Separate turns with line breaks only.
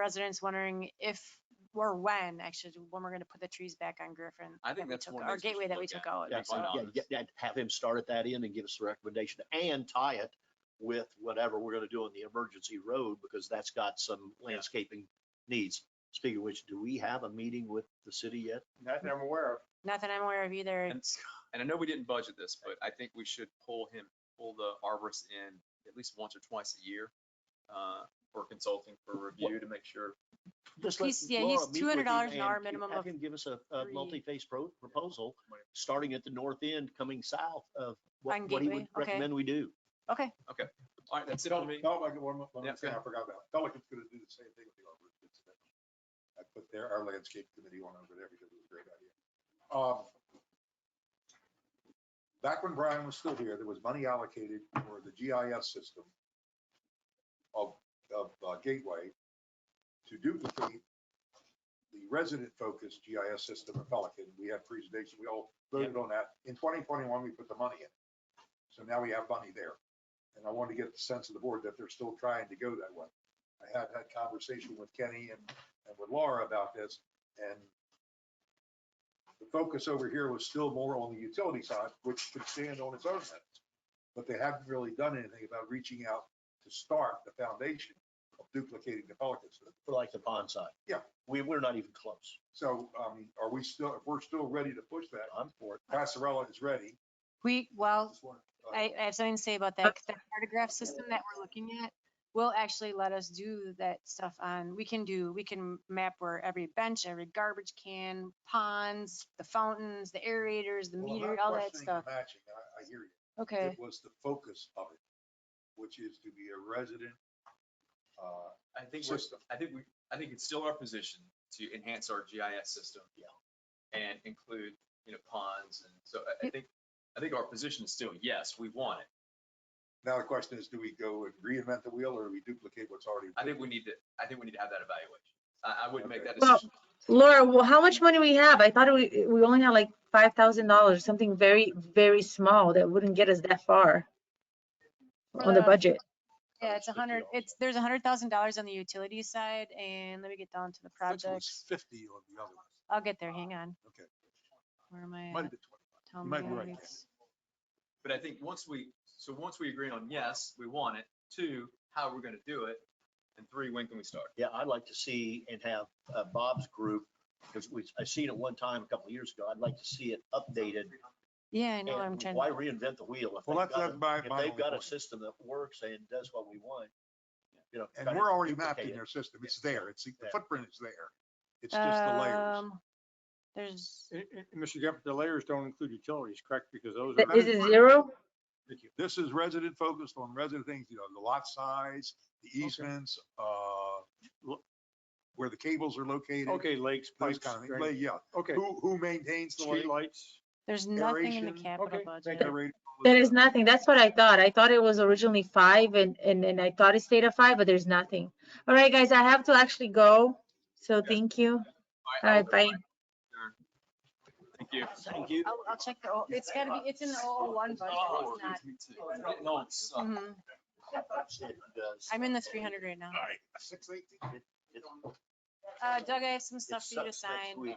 residents wondering if or when, actually, when we're gonna put the trees back on Griffin.
I
that
think
we
that's
took-
one of the
Our
things we should
gateway that we
look at.
took out.
Yeah,
so-
find out.
Yeah, yeah, yeah, have him start at that end and give us a recommendation and tie it with whatever we're gonna do on the emergency road, because that's got some landscaping needs. Speaking of which, do we have a meeting with the city yet?
Nothing I'm aware of.
Nothing I'm aware of either.
And-
It's-
And I know we didn't budget this, but I think we should pull him, pull the arborist in at least once or twice a year uh, for consulting, for review to make sure.
Just let
He's- yeah,
Laura
he's
meet with
$200
him
an hour
and
minimum
Have
of
him give us a, a
three.
multi-phase pro- proposal,
Right.
starting at the north end, coming south of what,
On
what he
Gateway,
would
okay.
recommend we do.
Okay,
All right, that's it for me.
Del- Delmarva, one more, one
Yeah,
more thing I
go
forgot about. Pelican's gonna do the same thing with the arborist. incident. I put their, our landscape committee on over there because it was a great idea. Um, Back when Brian was still here, there was money allocated for the GIS system of, of uh, Gateway to duplicate the resident-focused GIS system of Pelican. We had presentation, we all voted on that. In 2021, we put the money in. So now we have money there. And I wanted to get the sense of the board that they're still trying to go that way. I had that conversation with Kenny and, and with Laura about this, and the focus over here was still more on the utility side, which could stand on its own merits. But they haven't really done anything about reaching out to start the foundation of duplicating the Pelican system.
for like the pond side.
Yeah.
We, we're not even close.
So, um, are we still, if we're still ready to push that,
I'm for it.
Passarella is ready.
we, well,
Just wanna, uh,
I, I have something to say about
Uh,
that. 'cause The cartograph system that we're looking at will actually let us do that stuff on, we can do, we can map where every bench, every garbage can, ponds, the fountains, the aerators, the
well, I'm
meter,
not
all that
questioning the
stuff.
Matching, I, I hear you.
Okay.
It was the focus of it, which is to be a resident, uh,
I think we're,
system.
I think we, I think it's still our position to enhance our GIS system.
Yeah.
And include, you know, ponds. And so I, I think, I think our position is still, yes, we want it.
Now the question is, do we go and reinvent the wheel or do we duplicate what's already?
I think we need to, I think we need to have that evaluation. I, I wouldn't make that
Well,
decision.
Laura, well, how much money we have? I thought we, we only had like five thousand dollars, something very, very small that wouldn't get us that far on the
Uh,
budget.
Yeah, it's a
$150
hundred, it's, there's a hundred thousand dollars on the utility side, and let me get down to the
I thought it was
projects.
Fifty on the other one.
I'll get there, hang on.
Okay.
Where am I
Uh, Might
at?
have been
Tell
you might
me
be
how
right.
it's-
But I think once we, so once we agree on, yes, we want it, two, how we're gonna do it, and three, when can we start?
Yeah, I'd like to see and have uh, Bob's group, because we, I seen it one time a couple of years ago. I'd like to see it updated.
Yeah, I know,
And
I'm trying,
Why
to-
reinvent the wheel? If
Well,
they've
that's-
got a-
that's my-
If
my
they've
only
got a
point.
system that works and does what we want, you know.
And
kinda
we're already
duplicate
mapped in
it.
their system. It's there. It's, the
Yeah.
footprint is there. It's just the layers.
um, there's,
And- and- and Mr. Jeff, the layers don't include utilities, correct? Because those
Th-
are.
That
Is it zero?
This is resident focused on resident things, you know, the lot size, the easements, uh, lo- where the cables are located.
Okay, lakes,
Those
pipes,
kind of things. Like,
drainage.
Yeah,
okay,
who, who maintains the lake?
streetlights.
there's nothing in the
aeration,
capital
okay,
budget.
generator, all this
There is
stuff.
nothing. That's what I thought. I thought it was originally five and, and, and I thought it stayed at five, but there's nothing. All right, guys, I have to actually go. So thank you. All right, bye.
Thank you.
Thank you.
I'll, I'll check the, O- it's gotta be, it's in the O one budget,
Oh,
it's not.
No, it's, uh,
Mhm.
It does.
I'm in the three hundred right now.
All right, six eighteen.
It-
Uh, Doug, I have some
it
stuff for you to
sucks next
sign.
week.